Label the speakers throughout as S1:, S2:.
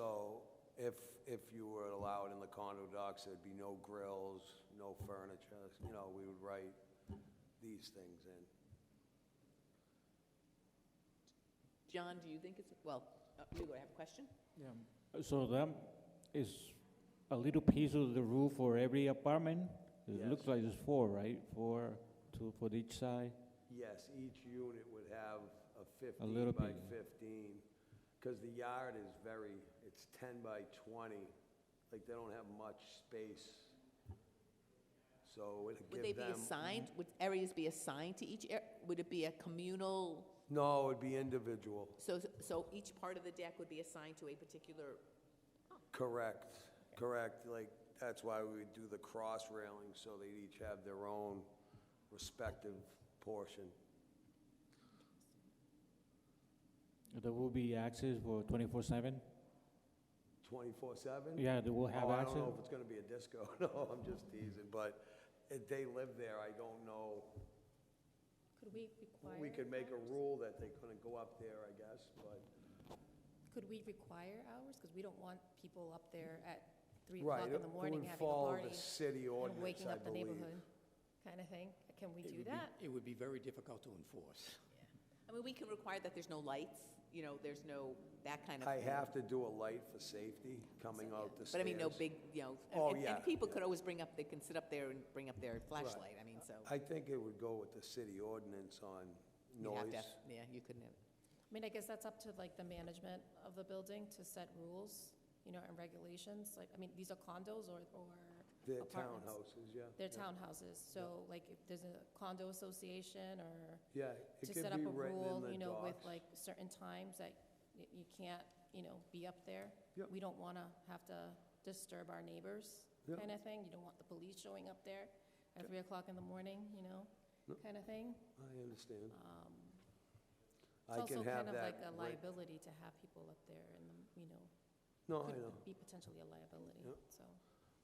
S1: So if, if you were allowed in the condo docks, there'd be no grills, no furniture, you know, we would write these things in.
S2: John, do you think it's, well, uh, you go, have a question?
S3: Yeah. So that is a little piece of the roof for every apartment? It looks
S1: Yes.
S3: like there's four, right? Four, two for each side?
S1: Yes, each unit would have a 15
S3: little
S1: by
S3: bit.
S1: 15, because the yard is very, it's 10 by 20, like they don't have much space. So it'd
S2: Would they
S1: give
S2: be
S1: them. mm-hmm.
S2: assigned, would areas be assigned to each, ar- would it be a communal,
S1: No, it'd be individual,
S2: so, so each part of the deck would be assigned to a particular,
S1: correct, correct, like, that's why we would do the cross railing, so they'd each have their own respective portion.
S3: There will be access for 24/7?
S1: 24/7?
S3: Yeah, they will have
S1: Oh, I don't know
S3: access.
S1: if it's gonna be a disco, no, I'm just teasing, but if they live there, I don't know.
S4: Could we require?
S1: We could make a rule that they couldn't go up there, I guess, but.
S4: Could we require hours? Because we don't want people up there at three o'clock in the morning having a
S1: It would follow the
S4: party
S1: city
S4: and
S1: ordinance,
S4: waking
S1: I
S4: up the
S1: believe.
S4: neighborhood, kind of thing. Can we
S5: It
S4: do
S5: would be-
S4: that?
S5: It would be very difficult to enforce.
S2: I mean, we can require that there's no lights, you know, there's no, that kind of.
S1: I
S2: thing.
S1: have to do a light for safety coming out the stairs.
S2: But I mean, no big, you know, and-
S1: Oh,
S2: and,
S1: yeah,
S2: and people
S1: yeah.
S2: could always bring up, they can sit up there and bring up their
S1: Right.
S2: flashlight, I mean, so.
S1: I think it would go with the city ordinance on
S2: you'd have to
S1: noise.
S2: have- Yeah, you couldn't have,
S4: I mean, I guess that's up to like the management of the building to set rules, you know, and regulations. Like, I mean, these are condos or, or
S1: The
S4: apartments.
S1: townhouses, yeah.
S4: They're
S1: yeah.
S4: townhouses, so like if there's a condo association or
S1: Yeah, it
S4: to
S1: could
S4: set up
S1: be
S4: a
S1: written in
S4: rule,
S1: the
S4: you know, with
S1: docs.
S4: like certain times that y- you can't, you know, be up there.
S1: Yep.
S4: We don't want to have to disturb our neighbors,
S1: Yep.
S4: kind of thing. You don't want the police showing up there at three o'clock in the morning, you know,
S1: Yep.
S4: kind of thing.
S1: I understand.
S4: It's
S1: I can
S4: also
S1: have
S4: kind of
S1: that.
S4: like a
S1: writ-
S4: liability to have people up there and, you know,
S1: No, Oh, I know.
S4: could be potentially a liability,
S1: Yep.
S4: so,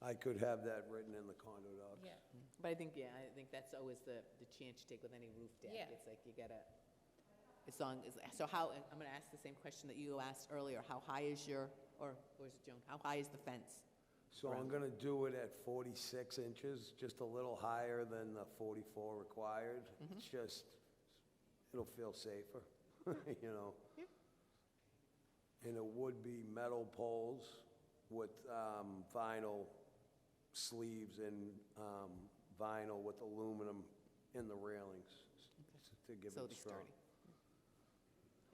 S1: I could have that written in the condo docs.
S4: yeah.
S2: but I think, yeah, I think that's always the, the chance you take with any roof deck.
S4: Yeah.
S2: It's like you gotta, as long as, so how, I'm gonna ask the same question that you asked earlier, how high is your, or, or is it Joan, how high is the fence?
S1: So I'm gonna do it at 46 inches, just a little higher than the 44 required.
S2: Mm-hmm.
S1: It's just, it'll feel safer, you know? And it would be metal poles with um, vinyl sleeves and um, vinyl with aluminum in the railings s- s- to give
S2: So
S1: it
S2: it's
S1: strong.
S2: sturdy.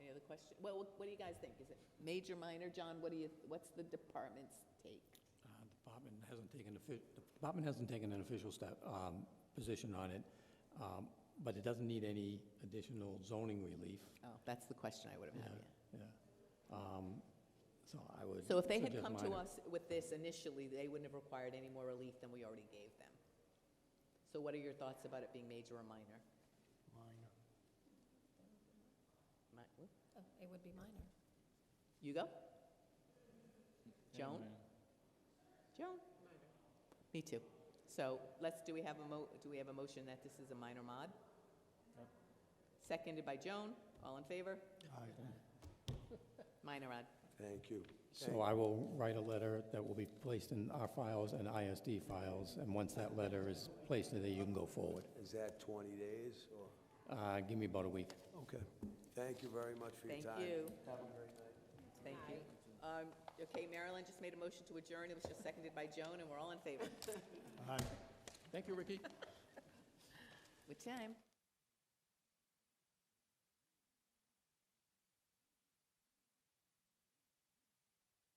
S2: Any other question? Well, what what do you guys think? Is it major, minor? John, what do you, what's the department's take?
S5: Uh, The Department hasn't taken, offi- the department hasn't taken an official step, um, position on it, um, but it doesn't need any additional zoning relief.
S2: Oh, that's the question I would have had, yeah.
S5: Yeah. Um, So I would.
S2: So if they had
S5: suggest
S2: come to
S5: minor.
S2: us with this initially, they wouldn't have required any more relief than we already gave them. So what are your thoughts about it being major or minor? Minor.
S4: Uh, It would be minor.
S2: You go? Joan? Joan? Me too. So let's, do we have a mo, do we have a motion that this is a minor mod? Seconded by Joan, all in favor? Minor mod.
S1: Thank you.
S5: So I will write a letter that will be placed in our files and ISD files, and once that letter is placed in there, you can go forward.
S1: Is that 20 days or?
S5: Uh, Give me about a week.
S1: Okay. Thank you very much for your
S2: Thank
S1: time.
S2: you.
S1: Have a great night.
S2: Thank you. Um, Okay, Marilyn just made a motion to adjourn, it was just seconded by Joan, and we're all in favor.
S5: Thank you, Ricky.
S2: What time?